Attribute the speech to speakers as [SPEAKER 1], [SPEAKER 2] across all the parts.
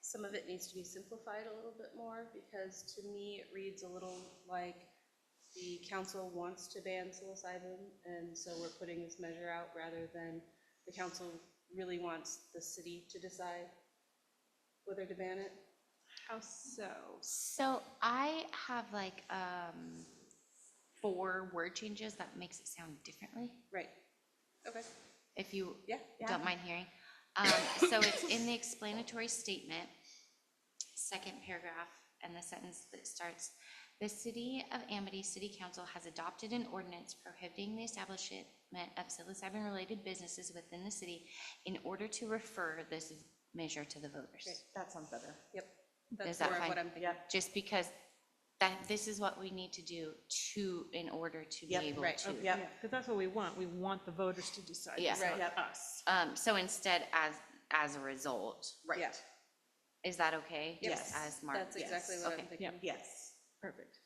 [SPEAKER 1] some of it needs to be simplified a little bit more, because to me, it reads a little like the council wants to ban psilocybin, and so we're putting this measure out, rather than the council really wants the city to decide whether to ban it.
[SPEAKER 2] How so?
[SPEAKER 3] So I have like um four word changes that makes it sound differently,
[SPEAKER 1] Right. Okay,
[SPEAKER 3] if you
[SPEAKER 1] yeah.
[SPEAKER 3] don't mind hearing. Um, so it's in the explanatory statement, second paragraph, and the sentence that starts, "The City of Amity City Council has adopted an ordinance prohibiting the establishment of psilocybin-related businesses within the city in order to refer this measure to the
[SPEAKER 1] Great.
[SPEAKER 3] voters."
[SPEAKER 4] That sounds better.
[SPEAKER 1] Yep.
[SPEAKER 3] Is
[SPEAKER 1] That's
[SPEAKER 3] that
[SPEAKER 1] more of
[SPEAKER 3] fine?
[SPEAKER 1] what I'm thinking.
[SPEAKER 3] just because that, this is what we need to do to, in order to be
[SPEAKER 4] Yep, oh,
[SPEAKER 3] able
[SPEAKER 1] right,
[SPEAKER 3] to.
[SPEAKER 1] okay.
[SPEAKER 4] Yep.
[SPEAKER 2] Because that's what we want. We want the voters to decide.
[SPEAKER 3] Yeah.
[SPEAKER 2] It's
[SPEAKER 1] Right.
[SPEAKER 2] not us.
[SPEAKER 3] Um, so instead, as, as a result,
[SPEAKER 1] Yeah,
[SPEAKER 3] is that okay? Just
[SPEAKER 4] Yes.
[SPEAKER 3] As Mark.
[SPEAKER 1] That's exactly what I'm
[SPEAKER 3] Okay.
[SPEAKER 1] thinking.
[SPEAKER 4] Yes,
[SPEAKER 2] Perfect.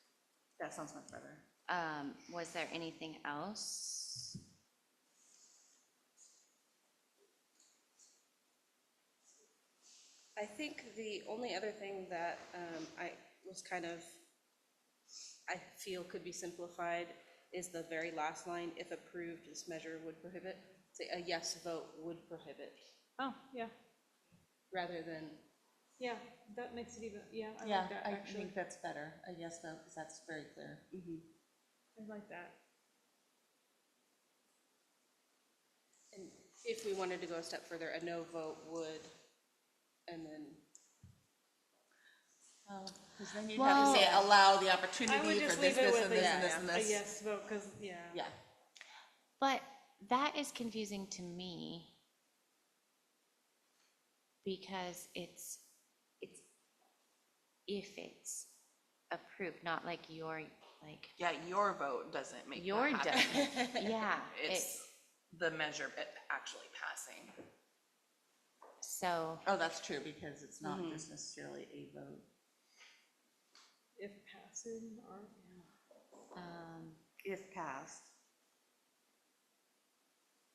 [SPEAKER 4] that sounds much better.
[SPEAKER 3] Um, was there anything else?
[SPEAKER 1] I think the only other thing that um, I was kind of, I feel could be simplified is the very last line, if approved, this measure would prohibit. Say a yes vote would prohibit,
[SPEAKER 2] Oh, yeah,
[SPEAKER 1] rather than,
[SPEAKER 2] yeah. That makes it even, yeah, I
[SPEAKER 4] Yeah,
[SPEAKER 2] like that,
[SPEAKER 4] I
[SPEAKER 2] actually.
[SPEAKER 4] think that's better, a yes vote, because that's very clear.
[SPEAKER 2] I like that.
[SPEAKER 1] and if we wanted to go a step further, a no vote would, and then,
[SPEAKER 4] Because then you'd have to say,
[SPEAKER 3] Well-
[SPEAKER 4] allow the
[SPEAKER 2] Oh. I would
[SPEAKER 4] opportunity
[SPEAKER 2] just
[SPEAKER 4] for this,
[SPEAKER 2] leave
[SPEAKER 4] this,
[SPEAKER 2] it with
[SPEAKER 4] and
[SPEAKER 2] a,
[SPEAKER 4] this, and this, and
[SPEAKER 2] yeah, a
[SPEAKER 4] this.
[SPEAKER 2] yes vote, because, yeah.
[SPEAKER 4] Yeah,
[SPEAKER 3] But that is confusing to me because it's, it's, if it's approved, not like your, like,
[SPEAKER 5] Yeah, your vote doesn't make
[SPEAKER 3] your,
[SPEAKER 5] that happen.
[SPEAKER 3] document. yeah.
[SPEAKER 5] It's the measure it actually passing.
[SPEAKER 3] So,
[SPEAKER 4] oh, that's true, because it's not just necessarily a vote.
[SPEAKER 2] If passing or, yeah.
[SPEAKER 3] um,
[SPEAKER 4] If passed.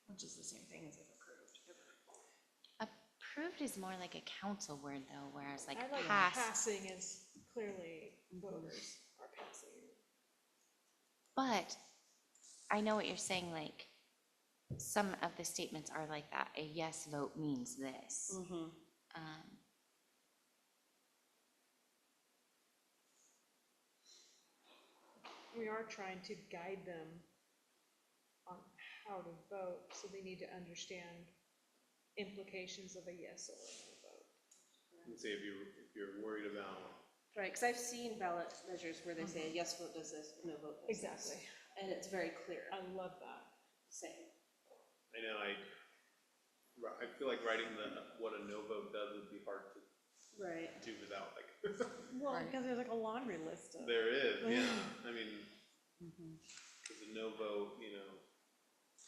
[SPEAKER 5] Which is the same thing as if approved.
[SPEAKER 3] approved is more like a council word though, whereas like
[SPEAKER 2] I like
[SPEAKER 3] passed.
[SPEAKER 2] passing is clearly voters are passing.
[SPEAKER 3] But I know what you're saying, like, some of the statements are like that, a yes vote means this.
[SPEAKER 5] Mm-hmm.
[SPEAKER 3] Um,
[SPEAKER 2] We are trying to guide them on how to vote, so they need to understand implications of a yes or a no vote.
[SPEAKER 6] And say if you're, if you're worried about,
[SPEAKER 1] right, because I've seen ballot measures where they say a yes vote does this, a no vote does this.
[SPEAKER 2] Mm-hmm. Exactly. Oh.
[SPEAKER 1] And it's very clear,
[SPEAKER 2] I love that.
[SPEAKER 1] saying.
[SPEAKER 6] I know, I, ri- I feel like writing the, what a no vote does would be hard to
[SPEAKER 1] Right.
[SPEAKER 6] do without, like,
[SPEAKER 2] Well,
[SPEAKER 4] Right.
[SPEAKER 2] because there's like a laundry list of.
[SPEAKER 6] there is, yeah, I mean,
[SPEAKER 4] Mm-hmm.
[SPEAKER 6] because a no vote, you know.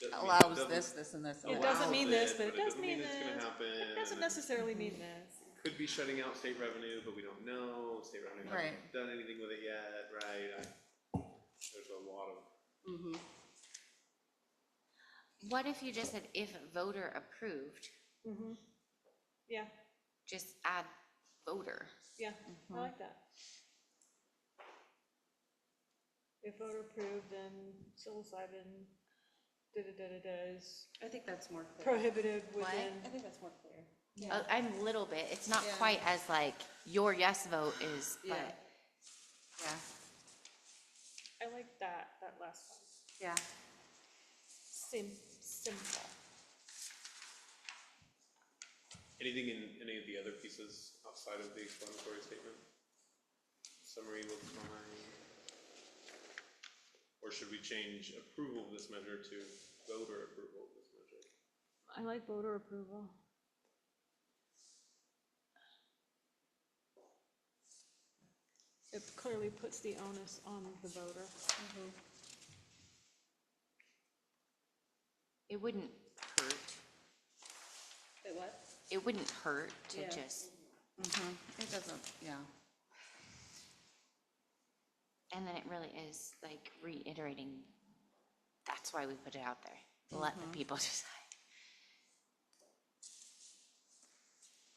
[SPEAKER 6] doesn't mean-
[SPEAKER 4] Allows
[SPEAKER 6] doesn't
[SPEAKER 4] this, this, and this.
[SPEAKER 2] It
[SPEAKER 4] allows
[SPEAKER 2] doesn't mean
[SPEAKER 6] allows
[SPEAKER 2] this, but it does mean
[SPEAKER 6] It doesn't mean it's
[SPEAKER 2] this.
[SPEAKER 6] gonna happen.
[SPEAKER 2] It doesn't
[SPEAKER 6] and
[SPEAKER 2] necessarily mean this.
[SPEAKER 6] Could be shutting out state revenue, but we don't know, state revenue
[SPEAKER 4] Right.
[SPEAKER 6] hasn't done anything with it yet, right? I- There's a lot of,
[SPEAKER 1] Mm-hmm.
[SPEAKER 3] What if you just said if voter approved,
[SPEAKER 4] Mm-hmm.
[SPEAKER 2] Mhm. Yeah,
[SPEAKER 3] just add voter?
[SPEAKER 2] yeah, I like that. If voter approved, then psilocybin, da-da-da-da-da is
[SPEAKER 1] I think that's more clear.
[SPEAKER 2] prohibited
[SPEAKER 3] What?
[SPEAKER 2] within.
[SPEAKER 1] I think that's more clear.
[SPEAKER 3] Uh, I'm little bit, it's not quite as like, your yes vote is,
[SPEAKER 1] Yeah.
[SPEAKER 3] but,
[SPEAKER 4] Yeah,
[SPEAKER 2] I like that, that last one.
[SPEAKER 4] yeah.
[SPEAKER 2] Sim, simple.
[SPEAKER 6] anything in any of the other pieces outside of the explanatory statement? Summary looks fine. Or should we change approval of this measure to voter approval of this measure?
[SPEAKER 2] I like voter approval. It clearly puts the onus on the voter.
[SPEAKER 3] it wouldn't hurt.
[SPEAKER 1] Wait, what?
[SPEAKER 3] It wouldn't hurt to
[SPEAKER 1] Yeah.
[SPEAKER 3] just,
[SPEAKER 4] It doesn't, yeah.
[SPEAKER 3] and then it really
[SPEAKER 1] Mm-hmm.
[SPEAKER 3] is like reiterating, that's why we put it out there. Let the people decide.